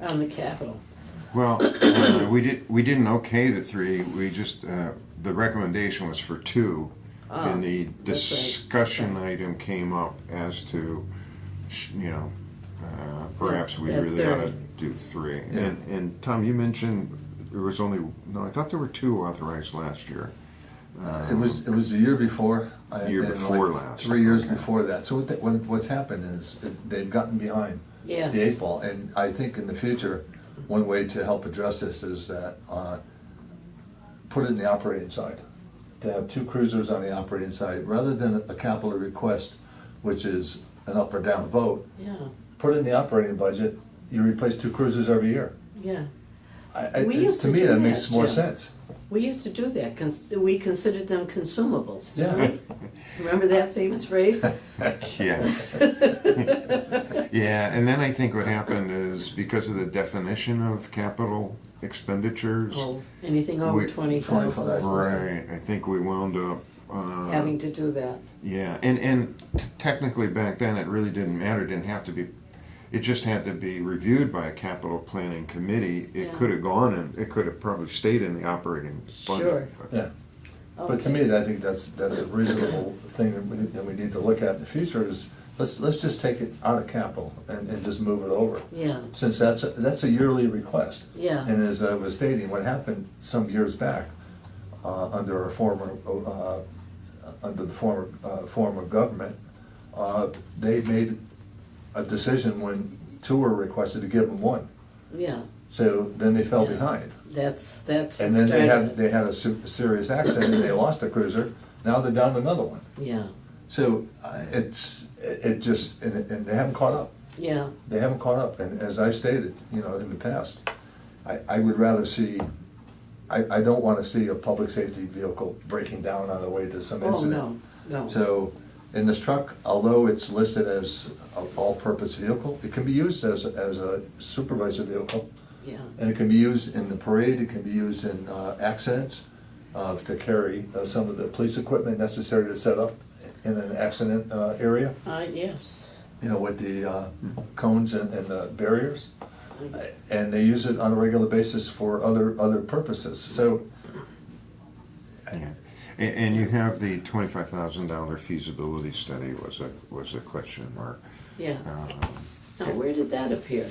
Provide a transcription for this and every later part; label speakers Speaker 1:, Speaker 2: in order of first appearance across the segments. Speaker 1: on the capital.
Speaker 2: Well, uh, we did, we didn't okay the three, we just, uh, the recommendation was for two. And the
Speaker 1: Oh, that's right.
Speaker 2: discussion item came up as to, sh- you know, uh, perhaps we
Speaker 1: Yeah,
Speaker 2: really ought to
Speaker 1: third.
Speaker 2: do three.
Speaker 3: Yeah.
Speaker 2: And, and Tom, you mentioned there was only, no, I thought there were two authorized last year.
Speaker 3: It was, it was the year before. I-
Speaker 2: Year
Speaker 3: and like
Speaker 2: before last,
Speaker 3: Three years
Speaker 2: okay.
Speaker 3: before that. So what, they- what- what's happened is that they've gotten behind the
Speaker 1: Yes.
Speaker 3: eight ball. And I think in the future, one way to help address this is that, uh, put it in the operating side. To have two cruisers on the operating side, rather than a capital request, which is an up or down vote,
Speaker 1: Yeah,
Speaker 3: put it in the operating budget, you replace two cruisers every year.
Speaker 1: yeah.
Speaker 3: I- I-
Speaker 1: We used to
Speaker 3: me,
Speaker 1: do
Speaker 3: that
Speaker 1: that,
Speaker 3: makes more
Speaker 1: Jim.
Speaker 3: sense.
Speaker 1: We used to do that. Cons- We considered them consumables, didn't
Speaker 3: Yeah.
Speaker 1: we? Remember that famous phrase?
Speaker 2: Yeah. Yeah, and then I think what happened is because of the definition of capital expenditures.
Speaker 1: Oh, Anything over
Speaker 2: We-
Speaker 1: twenty thousand,
Speaker 2: Right, I think we wound up, uh.
Speaker 1: having to do that.
Speaker 2: Yeah, and and t- technically back then it really didn't matter. It didn't have to be. It just had to be reviewed by a capital planning committee. It
Speaker 1: Yeah.
Speaker 2: could have gone and it could have probably stayed in the operating budget.
Speaker 1: Sure.
Speaker 2: but-
Speaker 3: Yeah. But to me, I think that's, that's a reasonable thing that we, that we need to look at in the future is, let's, let's just take it out of capital and, and just move it over.
Speaker 1: Yeah,
Speaker 3: Since that's, a- that's a yearly request.
Speaker 1: Yeah.
Speaker 3: And as I was stating, what happened some years back, uh, under our former, uh, under the former, uh, form of government, uh, they made a decision when two were requested to give them one.
Speaker 1: yeah.
Speaker 3: So then they fell
Speaker 1: Yeah.
Speaker 3: behind.
Speaker 1: That's, that's what
Speaker 3: And then they had,
Speaker 1: started
Speaker 3: they
Speaker 1: it.
Speaker 3: had a se- serious accident, and they lost a cruiser, now they're down another one.
Speaker 1: Yeah,
Speaker 3: So uh, it's, it it just, and, it- and they haven't caught up,
Speaker 1: yeah,
Speaker 3: they haven't caught up, and as I stated, you know, in the past, I, I would rather see, I, I don't wanna see a public safety vehicle breaking down on the way to some
Speaker 1: Oh,
Speaker 3: incident.
Speaker 1: no, no.
Speaker 3: So, in this truck, although it's listed as an all-purpose vehicle, it can be used as, as a supervisor vehicle.
Speaker 1: yeah.
Speaker 3: And it can be used in the parade, it can be used in uh, accidents, uh, to carry uh, some of the police equipment necessary to set up in an accident uh, area,
Speaker 1: Uh, yes.
Speaker 3: you know, with the uh, cones and and the barriers. And they use it on a regular basis for other, other purposes, so,
Speaker 2: Yeah. And, and you have the twenty-five thousand dollar feasibility study was a was a question mark.
Speaker 1: Yeah.
Speaker 2: Um,
Speaker 1: Now, where did that appear?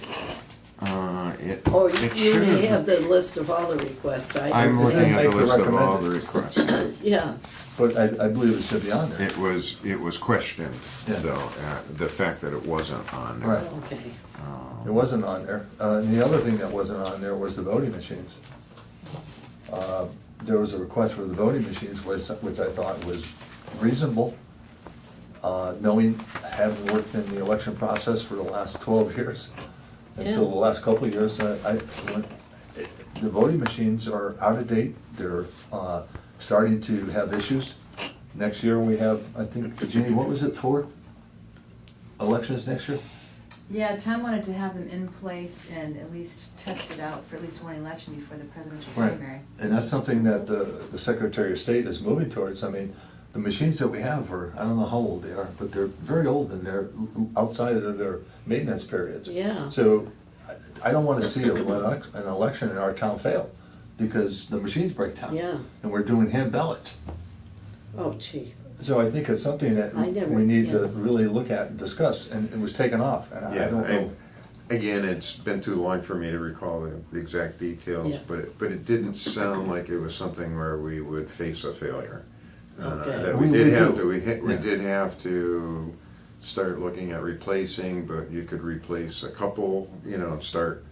Speaker 2: uh, it,
Speaker 1: Or you
Speaker 2: it
Speaker 1: Oh, you
Speaker 2: should
Speaker 1: may have the list of all the requests. I
Speaker 2: I'm
Speaker 1: don't
Speaker 2: looking
Speaker 1: have-
Speaker 2: at the
Speaker 3: Make the
Speaker 2: list of all the
Speaker 3: recommended.
Speaker 2: requests.
Speaker 1: Yeah,
Speaker 3: but I, I believe it should be on there.
Speaker 2: It was it was questioned
Speaker 3: Yeah.
Speaker 2: though uh, the fact that it wasn't on there.
Speaker 3: Right.
Speaker 1: okay.
Speaker 3: It wasn't on there. Uh, And the other thing that wasn't on there was the voting machines. Uh, There was a request for the voting machines, was- which I thought was reasonable, uh, knowing, having worked in the election process for the last 12 years, until the
Speaker 1: Yeah.
Speaker 3: last couple of years, I, I- when- it- the voting machines are out of date. They're uh, starting to have issues. Next year, we have, I think, Jeannie, what was it for? Elections next year?
Speaker 4: Yeah, Tom wanted to have them in place and at least test it out for at least one election before the presidential
Speaker 3: Right,
Speaker 4: primary.
Speaker 3: and that's something that the, the Secretary of State is moving towards, I mean, the machines that we have are, I don't know how old they are, but they're very old and they're outside of their maintenance periods.
Speaker 1: Yeah.
Speaker 3: So, I, I don't wanna see a- an elec- an election in our town fail, because the machines break down.
Speaker 1: Yeah.
Speaker 3: And we're doing hand ballots,
Speaker 1: Oh, gee.
Speaker 3: so I think it's something that
Speaker 1: I never-
Speaker 3: we need to
Speaker 1: yeah.
Speaker 3: really look at and discuss, and it was taken off, and I I
Speaker 2: Yeah,
Speaker 3: don't know.
Speaker 2: and again, it's been too long for me to recall the, the exact details,
Speaker 1: Yeah.
Speaker 2: but it, but it didn't sound like it was something where we would face a failure. Uh,
Speaker 1: Okay.
Speaker 2: That we
Speaker 3: We-
Speaker 2: did
Speaker 3: we
Speaker 2: have
Speaker 3: do.
Speaker 2: to, we hit, we
Speaker 3: Yeah.
Speaker 2: did have to start looking at replacing, but you could replace a couple, you know, and start,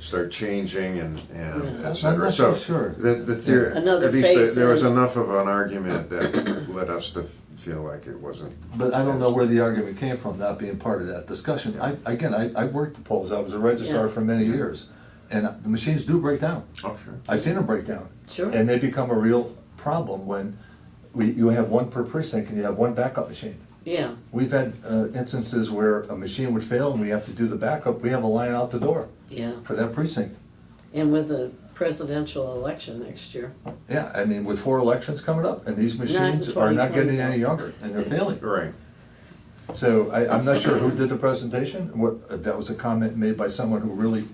Speaker 2: start changing and, and
Speaker 3: Yeah.
Speaker 2: et cetera.
Speaker 3: I'm not so sure.
Speaker 2: The, the theory,
Speaker 1: Yeah. Another
Speaker 2: at least there-
Speaker 1: phase
Speaker 2: there was
Speaker 1: in.
Speaker 2: enough of an argument that led us to feel like it wasn't.
Speaker 3: But I don't know where the argument came from, not being part of that discussion. I, again, I, I worked the polls, I was a registrar
Speaker 1: Yeah.
Speaker 3: for many years, and the machines do break down.
Speaker 2: Oh, sure.
Speaker 3: I've seen them break down.
Speaker 1: Sure.
Speaker 3: And they become a real problem when we, you have one per precinct and you have one backup machine.
Speaker 1: Yeah,
Speaker 3: We've had uh, instances where a machine would fail and we have to do the backup, we have a line out the door
Speaker 1: yeah.
Speaker 3: for that precinct.
Speaker 1: And with the presidential election next year.
Speaker 3: Yeah, I mean, with four elections coming up, and these machines are not getting any younger, and they're failing.
Speaker 2: Right.
Speaker 3: So I, I'm not sure who did the presentation, what, that was a comment made by someone who really